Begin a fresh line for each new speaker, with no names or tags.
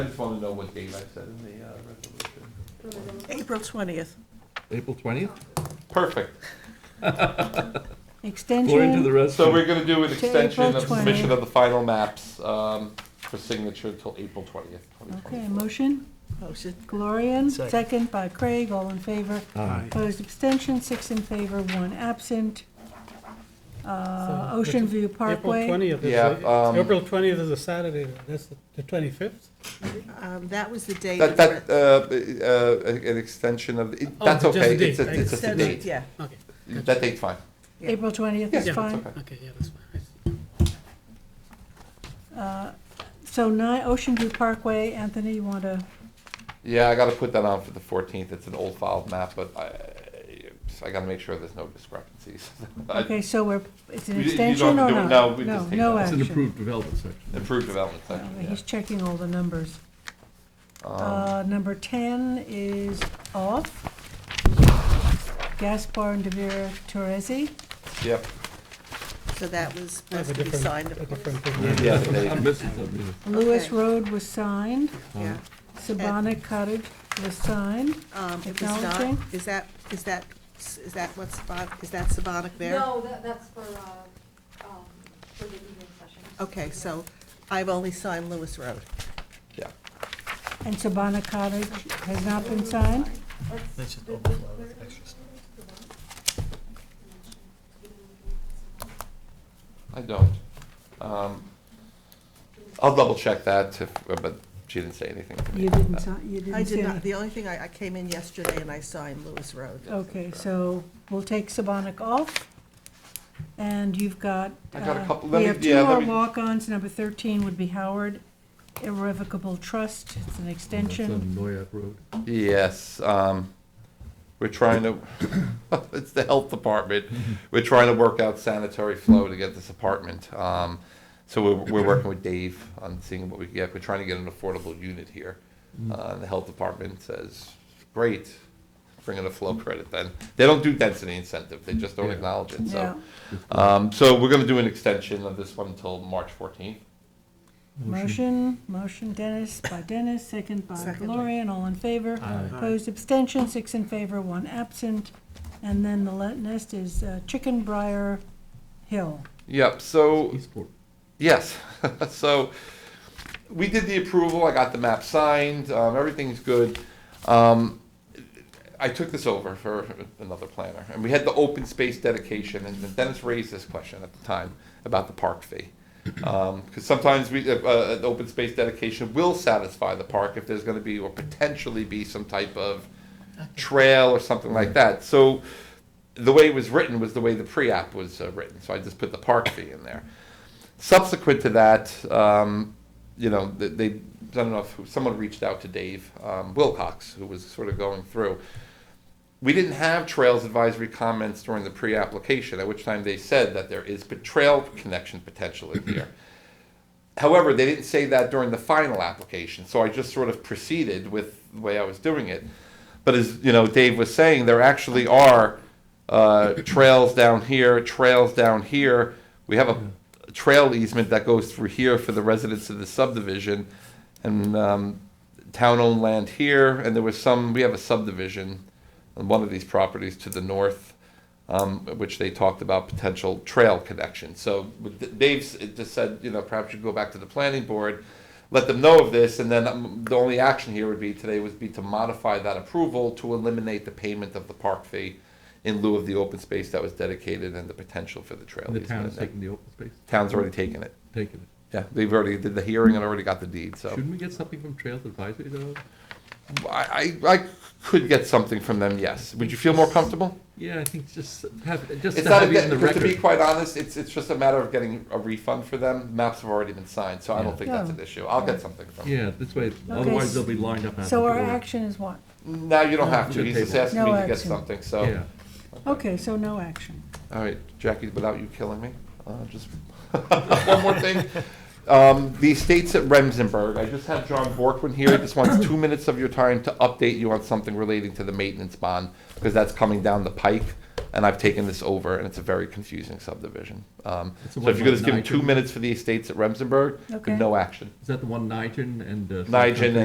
I just want to know what date I said in the uh, resolution.
April 20th.
April 20th?
Perfect.
According to
Extension,
the rest
So we're
of,
going to do an
To
extension
April
of submission of the final maps um, for signature until April 20th,
okay,
2024.
motion? Motion. Glorian,
Second.
second by Craig, all in favor.
Aye.
Opposed, abstention, six in favor, one absent. Uh, Ocean View
April
Parkway,
twentieth is,
Yeah, um,
a- April twentieth is a Saturday, that's the- the twenty-fifth?
Um, That was the day.
That,
that
that, uh, uh, an extension of, it-
Oh,
that's
just the
okay,
date,
it's a-
right.
it's just a date.
Yeah,
Okay,
That date's fine.
April 20th is
Yeah.
fine.
okay, yeah, that's fine. I see.
Uh, So nine, Ocean View Parkway, Anthony, you want to,
Yeah, I gotta put that on for the fourteenth, it's an old file map, but I, I gotta make sure there's no discrepancies.
okay, so we're, it's an
You- you don't
extension
have
or
to
not?
do it. No, we just take
No,
that.
it's an
action.
approved development section.
Improved development
No,
section,
Uh, He's
yeah.
checking all the numbers.
Um,
Uh, Number 10 is off. Gaspar and Devere Torresi. uh,
Yep,
so that was
That's
supposed
a
to be
different,
signed.
a different thing.
yeah, the date.
I'm missing something.
Lewis
Okay.
Road was signed.
Yeah,
Sabana Cottage was signed.
um, it was not,
Acknowledging.
is that, is that, is that what's, Saban- is that Sabonic there?
No, that, that's for, uh, um, for the evening session.
Okay, so I've only signed Lewis Road.
yeah.
And Sabana Cottage has not been signed.
That's just
I don't. Um, I'll double check that, if- uh, but she didn't say anything to me.
You didn't sign, you
I
didn't see
did not,
it.
the only thing, I, I came in yesterday and I signed Lewis Road.
Okay, so we'll take Sabana off. And you've got,
I got a
uh,
couple- let
we
me-
have
yeah,
two
let
more
me-
walk-ons. Number 13 would be Howard Irrevocable Trust. It's an
That's
extension.
on Noyak Road.
Yes, um, we're trying to, it's the health department, we're trying to work out sanitary flow to get this apartment. Um, so we're, we're working with Dave on seeing what we can get, we're trying to get an affordable unit here. Uh, the health department says, great, bring in a flow credit then. They don't do density incentive, they just don't
Yeah.
acknowledge it,
Yeah.
so. Um, so we're gonna do an extension of this one until March fourteenth.
Motion, motion Dennis by Dennis, second by
Second.
Gloria, and all in favor.
Aye.
Opposed, abstention, six in favor, one absent. And then the le- next is uh, Chicken Briar Hill.
Yep, so
Eastport.
Yes. so we did the approval. I got the map signed. Um, everything's good. Um, I took this over for another planner, and we had the open space dedication. And Dennis raised this question at the time about the park fee, because sometimes we uh, uh, an open space dedication will satisfy the park if there's going to be or potentially be some type of trail or something like that. So the way it was written was the way the pre-app was uh, written. So I just put the park fee in there subsequent to that, um, you know, they, they, I don't know if who- someone reached out to Dave um, Wilcox, who was sort of going through. We didn't have trails advisory comments during the pre-application, at which time they said that there is pot- trail connection potential in here. However, they didn't say that during the final application, so I just sort of proceeded with the way I was doing it. But as you know, Dave was saying, there actually are uh, trails down here, trails down here. We have a trail easement that goes through here for the residents of the subdivision, and um, town-owned land here. And there was some. We have a subdivision on one of these properties to the north um, which they talked about potential trail connection. So with- Dave s- just said, you know, perhaps you go back to the planning board, let them know of this, and then um, the only action here would be today would be to modify that approval to eliminate the payment of the park fee in lieu of the open space that was dedicated and the potential for the trail.
And the
easement.
town is taking the open space,
Town's already taken it.
taking it.
Yeah, they've already did the hearing and already got the deed, so.
Shouldn't we get something from Trails Advisory though?
I, I, I could get something from them, yes. Would you feel more comfortable?
Yeah, I think just have, just
It's
to
not,
have it
a-
in the
because to be
record.
quite honest, it's, it's just a matter of getting a refund for them. Maps have already been signed, so I don't
Yeah.
think that's an
Yeah.
issue. I'll get something from them.
Yeah, this way, otherwise they'll be lined up. out
So
Uh, the
our
door.
action is what?
No, you don't
No,
have to.
good
He's just
table.
asking
No
me to get
action.
something, so.
Yeah,
Okay, so no action.
All right, Jackie, without you killing me, uh, just, one more thing. Um, the estates at Remsenberg, I just have John Borkman here. He just wants two minutes of your time to update you on something relating to the maintenance bond, because that's coming down the pike. and I've taken this over, and it's a very confusing subdivision. Um,
It's the
So if you could just give
one
me two
Nigen-
minutes for the estates at Remsenburg, but
Okay.
no action.
Is that the one Nigel and? uh,
Nigel